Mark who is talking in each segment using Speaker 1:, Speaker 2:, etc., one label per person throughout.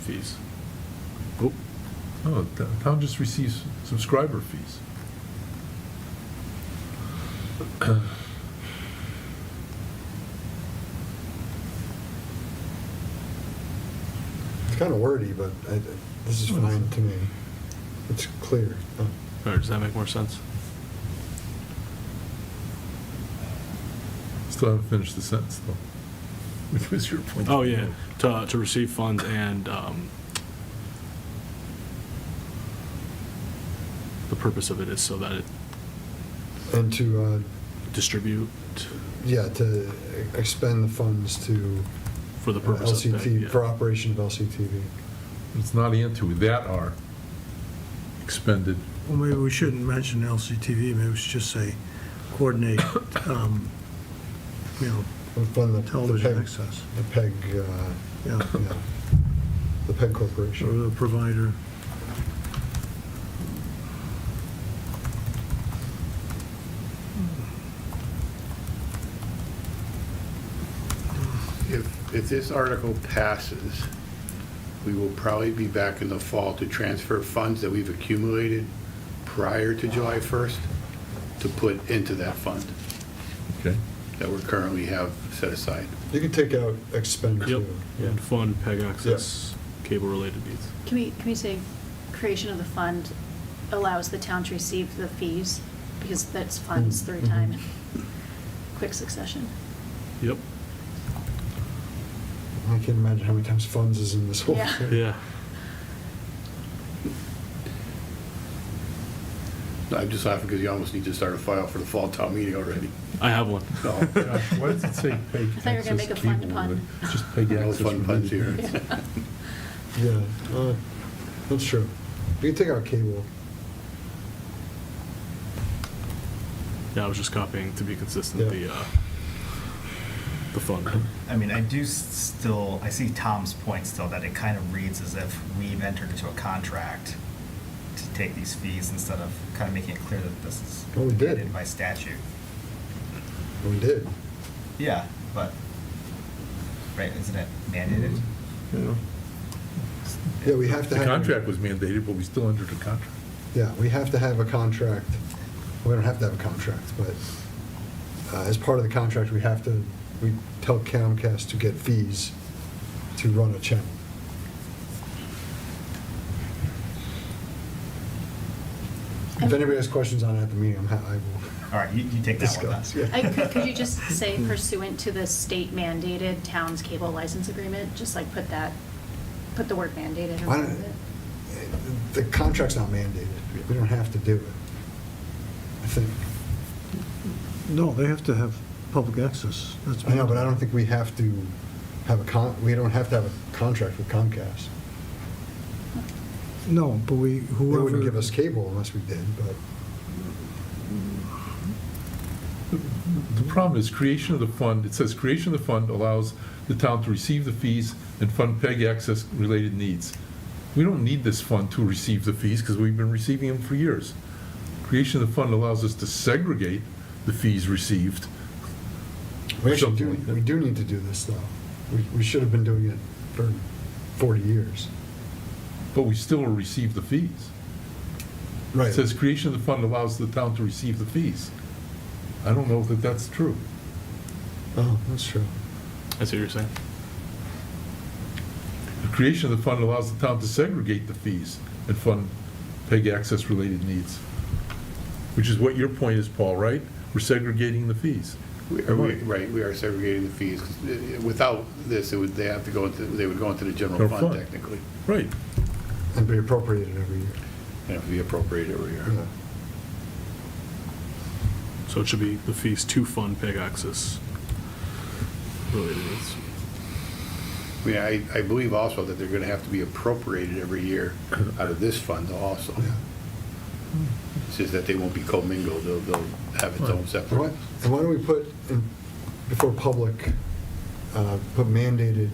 Speaker 1: fees.
Speaker 2: Oh, No, the town just receives subscriber fees.
Speaker 3: It's kind of wordy, but I, this is fine to me. It's clear.
Speaker 1: Or does that make more sense?
Speaker 2: Still haven't finished the sentence, though. Which was your point.
Speaker 1: Oh, yeah, to, to receive funds and, um, the purpose of it is so that it
Speaker 3: And to, uh,
Speaker 1: distribute
Speaker 3: yeah, to expend the funds to uh,
Speaker 1: for the purpose of. that,
Speaker 3: LCT,
Speaker 1: yeah.
Speaker 3: for operation of LCTV.
Speaker 2: It's not into, that are expended.
Speaker 4: Well, maybe we shouldn't mention LCTV, maybe we should just say coordinate, um, you know,
Speaker 3: And fund the- the
Speaker 4: television
Speaker 3: PEG
Speaker 4: access,
Speaker 3: The PEG, uh,
Speaker 4: yeah,
Speaker 3: yeah, the PEG
Speaker 4: or
Speaker 3: Corporation.
Speaker 4: the provider.
Speaker 5: If, if this article passes, we will probably be back in the fall to transfer funds that we've accumulated prior to July 1st to put into that fund
Speaker 2: Okay.
Speaker 5: that we currently have set aside.
Speaker 3: You could take out expend
Speaker 1: Yep,
Speaker 3: too.
Speaker 1: and fund PEG access cable-related needs.
Speaker 6: Can we, can we say creation of the fund allows the town to receive the fees? Because that's funds
Speaker 3: Mm,
Speaker 6: through
Speaker 3: mhm.
Speaker 6: time, in quick succession.
Speaker 1: Yep,
Speaker 3: I can't imagine how many times funds is in this whole
Speaker 6: Yeah.
Speaker 3: thing.
Speaker 1: yeah,
Speaker 5: I'm just laughing because you almost need to start a file for the fall town meeting already.
Speaker 1: I have one.
Speaker 5: No.
Speaker 2: Why does it say pay
Speaker 6: I thought you were gonna make a fun pun.
Speaker 2: Just pay
Speaker 5: No
Speaker 2: access.
Speaker 5: fun puns here.
Speaker 3: Yeah, uh, that's true. You could take out cable.
Speaker 1: Yeah, I was just copying to be consistent,
Speaker 3: Yeah.
Speaker 1: the, uh, the fund.
Speaker 7: I mean, I do s- still, I see Tom's point still, that it kind of reads as if we've entered into a contract to take these fees instead of kind of making it clear that this is
Speaker 3: Oh, we did.
Speaker 7: mandated by statute.
Speaker 3: We did.
Speaker 7: Yeah, but, right, isn't it mandated?
Speaker 3: Mm-hmm.
Speaker 4: Yeah.
Speaker 3: Yeah, we have to
Speaker 2: The
Speaker 3: have.
Speaker 2: contract was mandated, but we still entered a contract.
Speaker 3: Yeah, we have to have a contract. We don't have to have a contract, but uh, as part of the contract, we have to, we tell Comcast to get fees to run a channel. If anybody has questions on it at the meeting, I'm ha- I will
Speaker 7: All right, you, you take that one then.
Speaker 3: discuss. yeah.
Speaker 6: I, could, could you just say pursuant to the state mandated town's cable license agreement, just like put that, put the word mandated in
Speaker 3: Why
Speaker 6: front of
Speaker 3: don't-
Speaker 6: it?
Speaker 3: The contract's not mandated. We don't have to do it. I think,
Speaker 4: No, they have to have public access, that's.
Speaker 3: I know, but I don't think we have to have a con, we don't have to have a contract with Comcast.
Speaker 4: No, but we,
Speaker 3: They
Speaker 4: whoever.
Speaker 3: wouldn't give us cable unless we did, but.
Speaker 2: The problem is creation of the fund, it says creation of the fund allows the town to receive the fees and fund PEG access related needs. We don't need this fund to receive the fees because we've been receiving them for years. Creation of the fund allows us to segregate the fees received.
Speaker 3: We actually do,
Speaker 2: Something like that.
Speaker 3: we do need to do this, though. We, we should have been doing it for 40 years.
Speaker 2: But we still receive the fees. It says creation of the fund allows the town to receive the fees. I don't know that that's true.
Speaker 3: Oh, that's true.
Speaker 1: I see what you're saying.
Speaker 2: The creation of the fund allows the town to segregate the fees and fund PEG access-related needs, which is what your point is, Paul, right? We're segregating the fees.
Speaker 5: We are- we- Right, we are segregating the fees. 'cause uh, Without this, it would, they have to go into, they would go into the
Speaker 2: Their
Speaker 5: general
Speaker 2: fund.
Speaker 5: fund technically.
Speaker 2: Right.
Speaker 3: And be appropriated every year.
Speaker 5: And it would be appropriated every year.
Speaker 3: Yeah.
Speaker 1: So it should be the fees to fund PEG access related needs.
Speaker 5: I mean, I, I believe also that they're going to have to be appropriated every year out of this fund also.
Speaker 3: Yeah.
Speaker 5: It's just that they won't be commingled, they'll, they'll have its own
Speaker 3: And why
Speaker 5: separate.
Speaker 3: and why don't we put, in- before public, uh, put mandated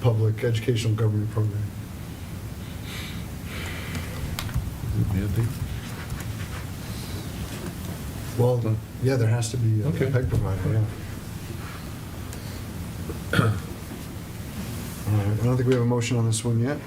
Speaker 3: public educational government program?
Speaker 2: Mandate?
Speaker 3: Well, yeah, there has to be a
Speaker 2: Okay.
Speaker 3: PEG provider, yeah. All right, I don't think we have a motion on this one yet.